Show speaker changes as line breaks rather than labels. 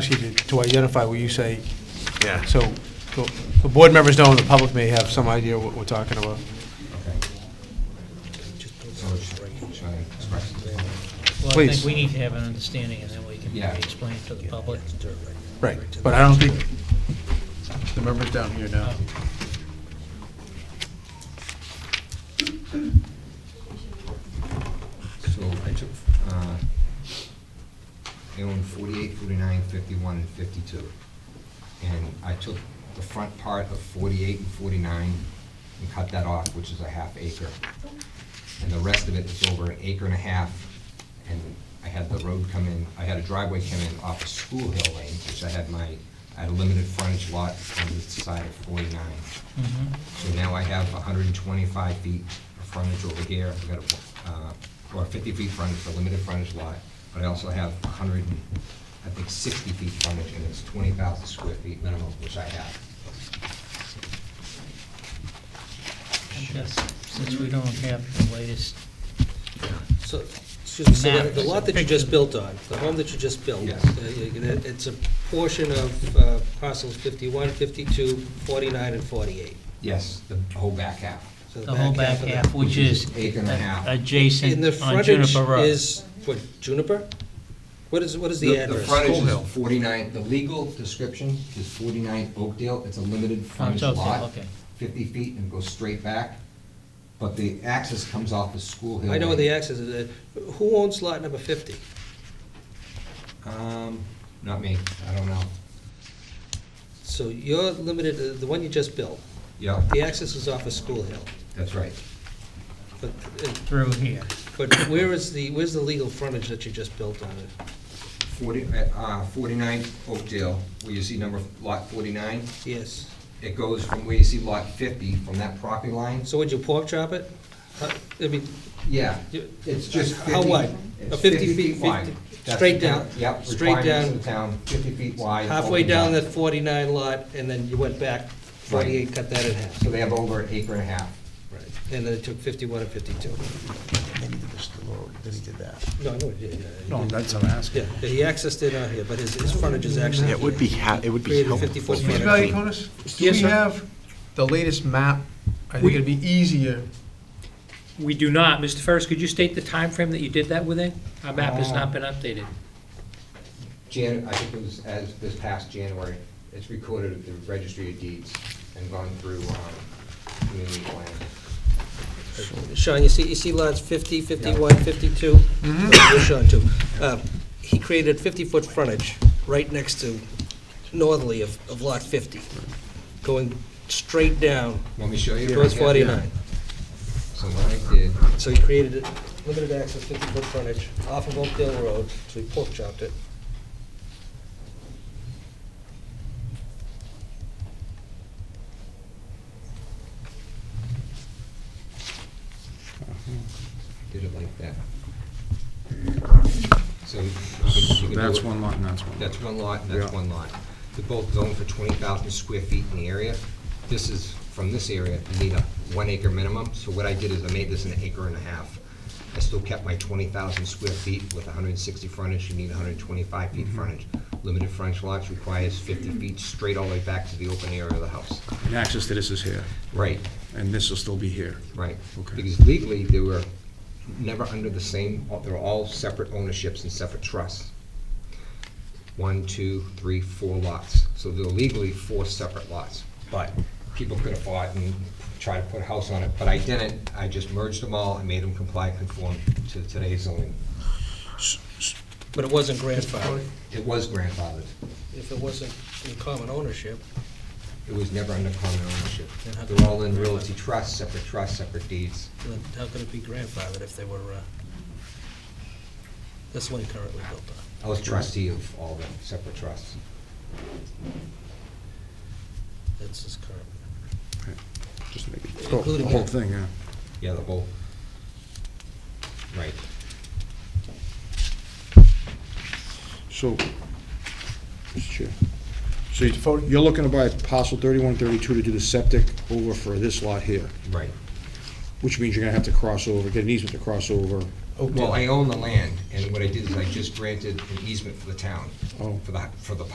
ask you to- to identify what you say,
Yeah.
so the- the board members know and the public may have some idea what we're talking about.
Well, I
Please.
think we need to have an understanding, and then we can
Yeah.
maybe explain it to the public.
Right, but I don't think, the member's down here now.
So I took, uh, I own 48, 49, 51, and 52. And I took the front part of 48 and 49 and cut that off, which is a half acre. And the rest of it is over an acre and a half. And I had the road come in, I had a driveway come in off of School Hill Lane, which I had my, I had a limited frontage lot on the side of 49.
Mhm.
So now I have 125 feet of frontage over here, I've got a, uh, or 50 feet frontage, a limited frontage lot, but I also have 100, and, I think 60 feet frontage, and it's 20,000 square feet minimum, which I have.
I guess, Since we don't have the latest,
So, excuse me, so the- the
Maps.
lot that you just built on, the home that you just built,
Yes.
uh, you can- it's a portion of uh, parcels 51, 52, 49, and 48.
Yes, the whole back half.
So
the whole back
of the-
half, which is
Acre and a half.
And
adjacent
the
on
frontage
Juniper Road.
is, what, Juniper? What is, what is the address?
The frontage is 49, the legal description is 49 Oakdale, it's a
Oh,
limited frontage
Oakdale,
lot.
okay.
50 feet and goes straight back, but the access comes off of School Hill.
I know where the
Lane.
access is. Uh, Who owns lot number 50?
Um, not me, I don't know.
So you're limited, uh, the one you just built,
Yeah,
the access is off of School Hill.
that's right.
But, uh,
Through here.
but where is the, where's the legal frontage that you just built on it?
40, uh, 49 Oakdale, where you see number, lot 49,
Yes.
it goes from where you see lot 50, from that property line, so,
So would you pork chop it? Uh, I mean,
yeah,
You-
it's just 50.
How wide?
it's
Uh, 50 feet,
wide.
50
That's the
straight down,
town- Yep,
straight
requirements
down.
of the town, 50 feet wide.
halfway
open
down
lot.
that 49 lot, and then you went back 48, cut that in half.
So they have over an acre and a half.
Right. And then it took 51 and 52.
Then he did this to the road, then he did that.
No, I know, yeah, yeah,
No, that's what I'm
yeah.
asking.
Yeah, he accessed it out here, but his, his frontage is actually
Yeah, it would be, ha- it would be
Created
helpful.
54
for
feet.
me.
Mr. Valiakonis, do
Yes,
we
sir.
have the latest map? I think it'd be easier.
We do not. Mr. Ferris, could you state the time frame that you did that within? Our map has not been updated.
Jan, I think it was as, this past January, it's recorded at the Registry of Deeds and gone through, um, community plan.
Sean, you see, you see lots 50, 51, 52? You're Sean, too. Uh, He created 50-foot frontage right next to northerly of, of lot 50, going straight down
Want me to show you?
towards
right here?
49.
So what I did,
So he created it, limited access, 50-foot frontage, off of Oakdale Road, so he pork chopped it.
did it like that. So.
That's one lot and that's one lot.
That's one lot, and that's
Yeah.
one lot. They're both zoned for twenty thousand square feet in the area. This is, from this area, you need a one acre minimum, so what I did is I made this an acre and a half. I still kept my twenty thousand square feet with hundred and sixty frontage, you need hundred and twenty-five feet frontage. Limited frontage lots requires fifty feet straight all the way back to the open area of the house.
And access to this is here,
Right,
and this will still be here.
Right,
Okay.
because legally, they were never under the same, they were all separate ownerships and separate trusts. One, two, three, four lots, so they're legally four separate lots. But people could have bought and tried to put a house on it, but I didn't, I just merged them all and made them comply, conform to today's zoning.
But it wasn't grandfathered.
It was grandfathered,
If it wasn't in common ownership,
it was never under common ownership.
Then how-
They're all in realty trusts, separate trusts, separate deeds.
then how could it be grandfathered if they were, uh, that's the one he currently built on?
I was trustee of all the separate trusts.
That's his current.
Just to make it-
Including
The whole
here.
thing, yeah.
Yeah, the whole. Right.
So, Mr. Chair, so you- you're looking to buy parcel 3132 to do the septic over for this lot here,
Right.
which means you're gonna have to cross over, get an easement to cross over.
Well, I own the land, and what I did is I just granted an easement for the town,
Oh.
for the, for the